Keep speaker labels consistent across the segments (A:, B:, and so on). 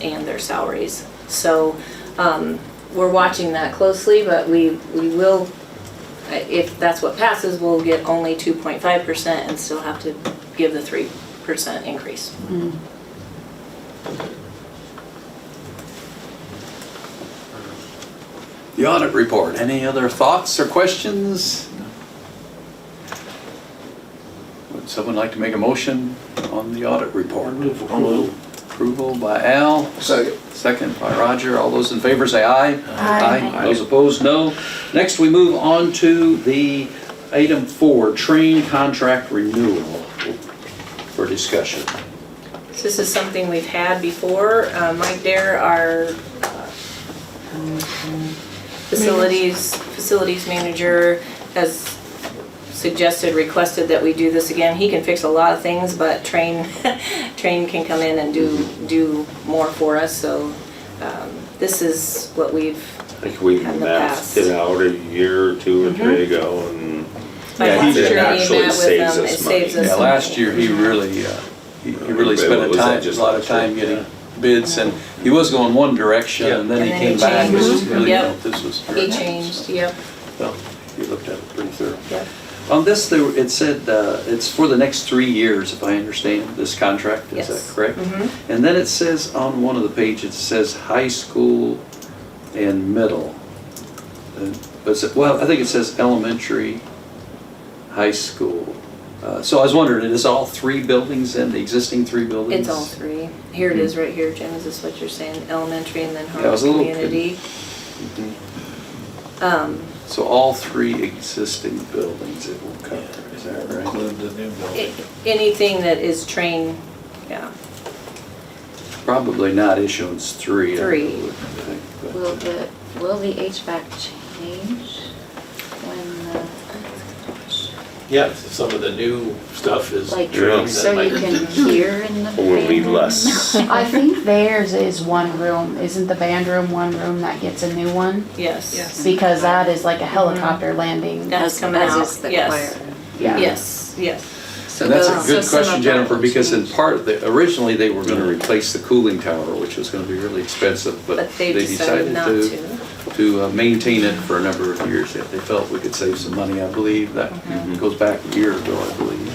A: and their salaries. So um, we're watching that closely, but we, we will, uh, if that's what passes, we'll get only 2.5% and still have to give the 3% increase.
B: The audit report, any other thoughts or questions? Would someone like to make a motion on the audit report? Approval by Al,
C: Second.
B: second by Roger. All those in favor say aye.
D: Aye.
B: Those opposed, no. Next, we move on to the item four, train contract renewal for discussion.
A: This is something we've had before. Uh, Mike Dare, our uh, facilities, facilities manager, has suggested, requested that we do this again. He can fix a lot of things, but Train, Train can come in and do, do more for us, so um, this is what we've,
D: I think we
A: Had the
D: mapped
A: past.
D: it out a year or two or three ago and.
A: my
D: Yeah,
A: last
D: he did.
A: year
D: It
A: he
D: actually
A: met with
D: saves
A: them, it
D: us
A: saves
D: money.
A: us.
B: Yeah, last year, he really, uh, he he really
D: What
B: spent a
D: was that,
B: time, a
D: just
B: lot of
D: last year?
B: time getting bids, and he was going one direction, and then he
A: And then he
B: came back, and
A: changed.
B: really
A: Yep.
B: felt this was.
A: He changed, yep,
B: Well, he looked at it pretty thorough.
A: yep.
B: On this, there, it said, uh, it's for the next three years, if I understand this contract,
A: Yes.
B: is that correct?
A: Mhm.
B: And then it says on one of the pages, it says high school and middle. And- But, it's- well, I think it says elementary, high school. Uh, So I was wondering, it is all three buildings and the existing three
A: It's
B: buildings?
A: all three. Here it is right here, Jim, is this what you're saying, elementary and then
B: Hmm.
A: Harmon
B: Yeah, I was a little Mm-hmm.
A: Community?
B: Mhm.
A: Um,
B: So all three existing buildings it will cover, is that right?
C: Include the new
A: a-
C: building.
A: anything that is train, yeah,
B: Probably not issuance three. I
A: Three.
B: would think, but-
E: Will the, will the HVAC change when
F: Yeah, some of the new stuff is.
E: the, like,
D: Yeah.
F: dreams that
E: so you
F: might-
E: can hear in the
D: Or will be
E: fan?
D: less.
G: I think theirs is one room. Isn't the band room one room that gets a new one?
A: yes.
G: Because that is like a helicopter landing.
A: That's
E: As,
A: coming
E: as
A: out,
E: is the
A: yes.
E: choir.
G: Yeah.
A: Yes, yes.
B: And that's a good
E: So some of
B: question,
E: that
B: Jennifer,
E: will
B: because in
E: change.
B: part, of the- originally, they were gonna replace the cooling tower, which was gonna be really expensive, but
A: But
B: they decided
A: not
B: to,
A: to.
B: to uh, maintain it for a number of years, if they felt we could save some money, I believe, that goes back a year ago, I believe.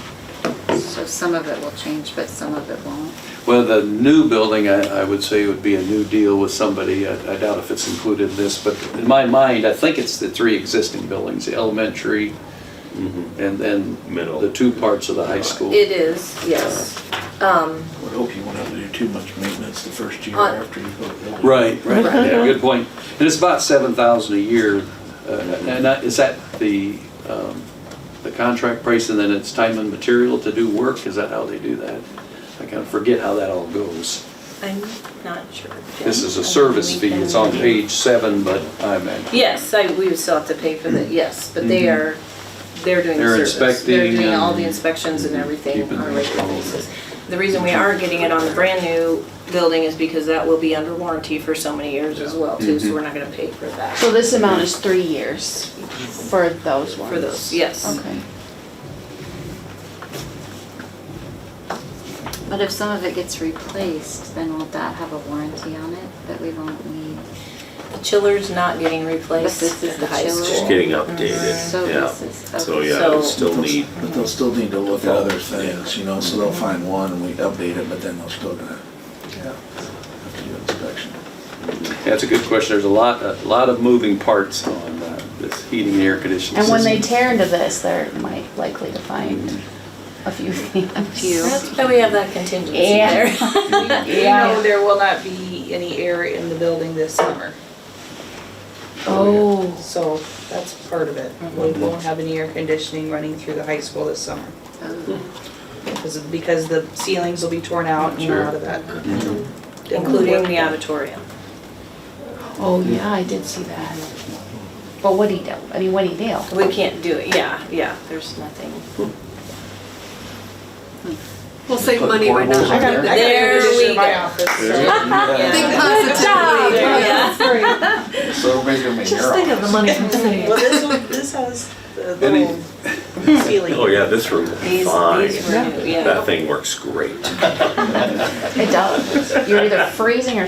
E: So some of it will change, but some of it won't.
B: Well, the new building, I, I would say would be a new deal with somebody, I I doubt if it's included in this, but in my mind, I think it's the three existing buildings, the elementary, and then
D: Middle.
B: the two parts of the high school.
A: It is, yes. Um,
C: Would hope you won't have to do too much maintenance the first year
A: On-
C: after you go build.
B: Right, right, yeah, good point. And it's about seven thousand a year, uh, and that- is that the, um, the contract price and then it's time and material to do work? Is that how they do that? I kind of forget how that all goes.
A: I'm not sure. Jim.
B: This is
A: I
B: a
A: think
B: service
A: we
B: fee,
A: can-
B: it's on page seven, but I mean,
A: Yes, I, we would still have to pay for the, yes, but they are, they're doing
B: Mm-hmm. They're
A: the service. They're
B: inspecting
A: doing all the
B: and
A: inspections and everything
B: keeping
A: on a
B: them
A: regular
B: all.
A: basis. The reason we are getting it on the brand new building is because that will be under warranty for so many years as well too,
B: Mm-hmm.
A: so we're not gonna pay for
G: So
A: that.
G: this amount is three years for those ones?
A: For those, yes.
G: Okay.
E: But if some of it gets replaced, then will that have a warranty on it that we won't need?
A: The chiller's not getting replaced
E: But this is
A: at the
E: the
A: high
E: chiller.
A: school.
D: Just getting
A: Mm-hmm.
D: updated,
E: So
D: yeah.
E: this is.
D: So,
E: okay.
D: yeah, it'll
A: So-
D: still need,
C: But they'll still need to look at other things, you know, so they'll find one and we update it, but then they'll still gonna, yeah, have to do inspection.
B: that's a good question. There's a lot, a lot of moving parts on uh, this heating and air conditioning
G: And when they
B: system.
G: tear into this, they're might likely to find a few things. A
E: few.
A: That's why we have that contingency
G: Yeah.
A: there.
H: You know, there will not be any air in the building this summer,
G: Oh,
H: so that's part of it. We
A: Mm-hmm.
H: won't have any air conditioning running through the high school this summer. Because, because the ceilings will be torn out and a lot of that.
A: Including the auditorium.
G: oh yeah, I did see that. But what'd he do? I mean, what'd he do?
A: We can't do it, yeah, yeah, there's nothing.
I: We'll save money by
B: Portables
I: not.
B: in there.
A: got air conditioner in my
I: Think
A: Yeah.
I: positively.
A: Yeah.
C: So make them in
I: Just think of the money we're saving.
H: Well, this one, this has the
B: Any-
H: little ceiling.
D: oh yeah, this room will be
A: These, these
D: fine.
A: were new, yeah.
D: That thing works great.
G: It does. You're either freezing or